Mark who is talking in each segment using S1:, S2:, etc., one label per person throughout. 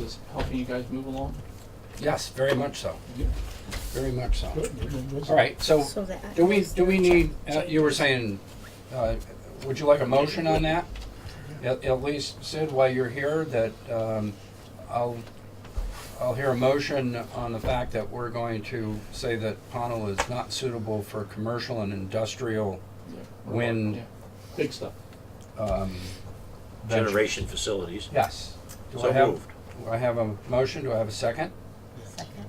S1: was helping you guys move along?
S2: Yes, very much so.
S1: Yeah.
S2: Very much so.
S1: Good.
S2: All right, so
S3: So that.
S2: do we, do we need, uh, you were saying, uh, would you like a motion on that? At, at least, Sid, while you're here, that um, I'll, I'll hear a motion on the fact that we're going to say that Pownell is not suitable for commercial and industrial When-
S1: Big stuff.
S2: um, venture.
S4: generation facilities.
S2: Yes. Do I
S4: So
S2: have-
S4: moved.
S2: Do I have a motion? Do I have a second?
S3: Second.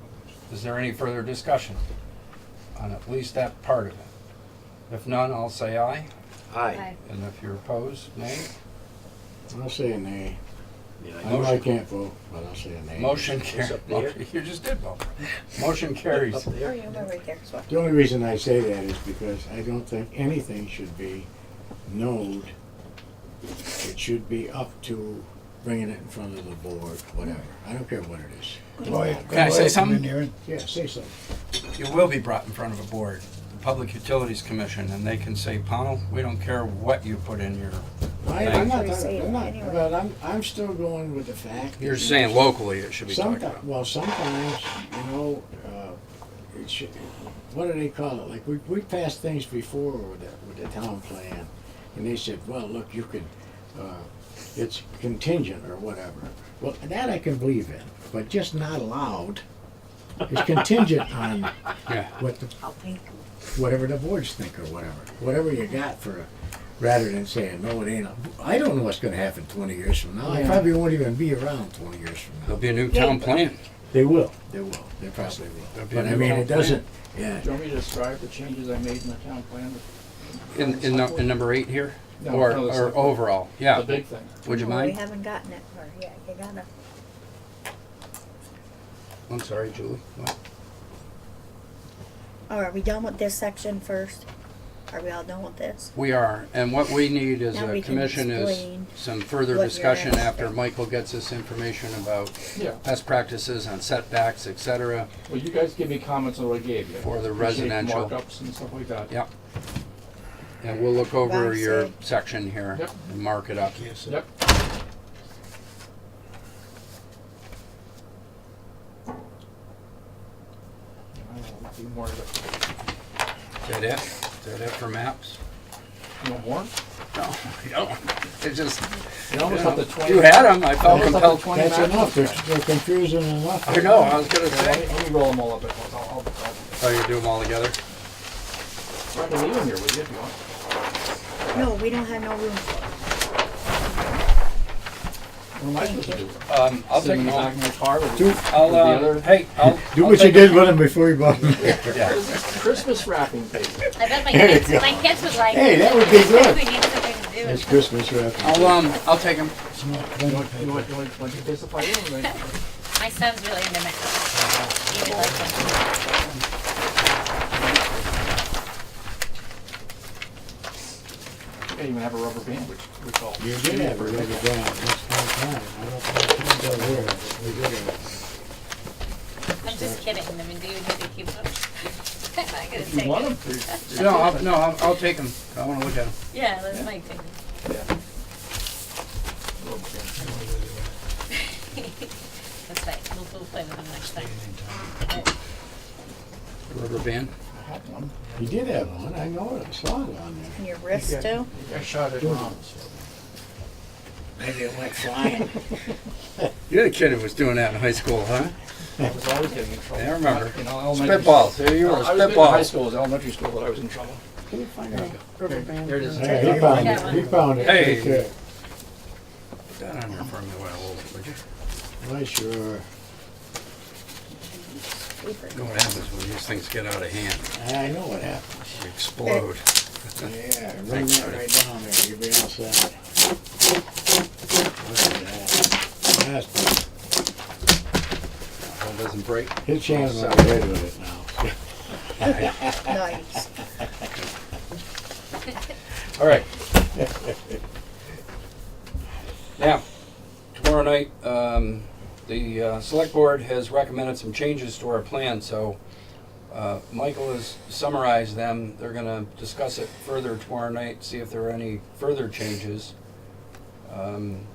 S2: Is there any further discussion on at least that part of it? If none, I'll say aye,
S4: Aye.
S2: and if you're opposed, nay.
S5: I'll say a nay.
S4: Yeah,
S5: I
S4: I know.
S5: know I can't vote, but I'll say a nay.
S2: Motion carries.
S4: It's up there.
S2: You just did vote. Motion carries.
S4: Up
S3: Oh,
S4: there.
S3: yeah, we're right there as well.
S5: The only reason I say that is because I don't think anything should be node. It should be up to bringing it in front of the board, whatever. I don't care what it is.
S6: Lawyer-
S2: Can I say
S6: lawyer come
S2: something?
S6: in here and-
S5: Yeah, say something.
S2: You will be brought in front of a board, the Public Utilities Commission, and they can say, Pownell, we don't care what you put in your.
S5: I, I'm not,
S3: Actually say it
S5: I'm not,
S3: anyway.
S5: but I'm, I'm still going with the fact. that-
S2: locally it should
S5: Sometimes, well, sometimes, you know, uh, it should, what do they call it? Like, we, we passed things before with the, with the town plan, and they said, well, look, you can, uh, it's contingent or whatever. Well, that I can believe in, but just not allowed. It's contingent on
S2: Yeah.
S5: what the,
S3: I'll pink.
S5: whatever the boards think or whatever, whatever you got for, a- rather than saying, no, it ain't. I don't know what's gonna happen twenty years from now. I probably won't even be around twenty years from now.
S2: There'll be a new town plan.
S5: They will. They will. They probably will. But I mean, it doesn't, yeah.
S1: Do you want me to describe the changes I made in the town plan?
S2: In, in, nu- in number eight here?
S1: No,
S2: Or,
S1: no, it's
S2: or
S1: not.
S2: overall?
S1: The
S2: Yeah.
S1: big thing.
S2: Would you
S3: Well, We
S2: mind?
S3: haven't gotten it far yet. You gotta,
S2: I'm sorry, Julie. What?
S3: oh, are we done with this section first? Are we all done with this?
S2: We are, and what we need as
S3: Now
S2: a
S3: we can
S2: commission is
S3: explain
S2: some further
S3: what you're
S2: discussion
S3: asking.
S2: after Michael gets us information about
S1: Yeah.
S2: best practices on setbacks, et cetera.
S1: Well, you guys give me comments on what I gave you.
S2: For the
S1: Shape
S2: residential.
S1: Markups and stuff like that.
S2: Yeah. And we'll look over
S3: Right,
S2: your
S3: so-
S2: section here
S1: Yep.
S2: and mark it up.
S1: Yep. I don't do more of it.
S2: Is that it? Is that it for maps?
S1: You want more?
S2: No, we don't. It's just,
S1: You almost have the twenty.
S2: you had them, I felt
S1: Yeah.
S2: compelled.
S1: Twenty
S5: That's
S1: matches.
S5: enough. They're, they're confusing enough.
S2: I know, I was gonna
S1: Yeah, Let me,
S2: say.
S1: let me roll them all up at once. I'll, I'll,
S2: Oh, you do them all together?
S1: I'll, I can leave them here with you if you want.
S3: No, we don't have no room for it.
S1: What am I supposed to do? with them?
S2: Um, I'll
S1: Sit
S2: take
S1: them in
S2: them
S1: the back
S2: all.
S1: of my car with
S5: Two.
S2: I'll,
S1: the
S2: uh,
S1: other-
S2: hey, I'll.
S5: Do
S2: I'll
S5: what you
S2: take
S5: did with them before you bought them.
S2: them. Yeah.
S1: Christmas wrapping paper.
S7: I bet my
S5: There you
S7: kids,
S5: go.
S7: my kids would like.
S5: Hey,
S7: it.
S5: that would be good.
S7: We need something to do.
S5: It's Christmas wrapping.
S2: I'll, um, I'll take them.
S6: It's not
S1: You
S6: plenty
S1: want, you
S6: paper.
S1: want, you want, want to specify anything?
S7: My son's really into math. He would like it.
S1: I can't even have a rubber band, which we call.
S5: You did have a rubber band. That's one time. I don't think it's over. We did have
S7: I'm just kidding. I mean, do you need to keep them? I'm not gonna
S1: You
S7: take
S1: want
S7: it.
S1: them to?
S2: No, I'll, no, I'll, I'll take them. I wanna look at them.
S7: Yeah, that's my thing. That's right. We'll, we'll play with them next time.
S2: Rubber band?
S1: I had one.
S5: it. You did have one. I know it. I saw it on there.
S3: And your wrist
S1: Yeah.
S3: too?
S1: I shot it wrong.
S5: Maybe it went flying.
S2: You're the kid who was doing that in high school, huh?
S1: I was always getting in trouble.
S2: Yeah, I remember.
S1: You know, elementary.
S2: Spitballs, here you
S1: I
S2: are,
S1: was in high
S2: spitballs.
S1: school, it was elementary school that I was in trouble.
S5: Can you find it?
S1: There it is.
S5: Hey, he found it. He found it.
S2: Hey.
S5: Right there.
S2: Put that on there for me while I hold it, would you?
S5: Why, sure.
S2: Know what happens when these things get out of hand,
S5: I know what happened.
S2: they explode.
S5: Yeah, run that right down there, you'll be outside. Look at that. That's-
S2: Well, it doesn't break.
S5: His hands are away with it now.
S3: Nice.
S2: All right. Now, tomorrow night, um, the uh, select board has recommended some changes to our plan, so uh, Michael has summarized them. They're gonna discuss it further tomorrow night, see if there are any further changes. Um,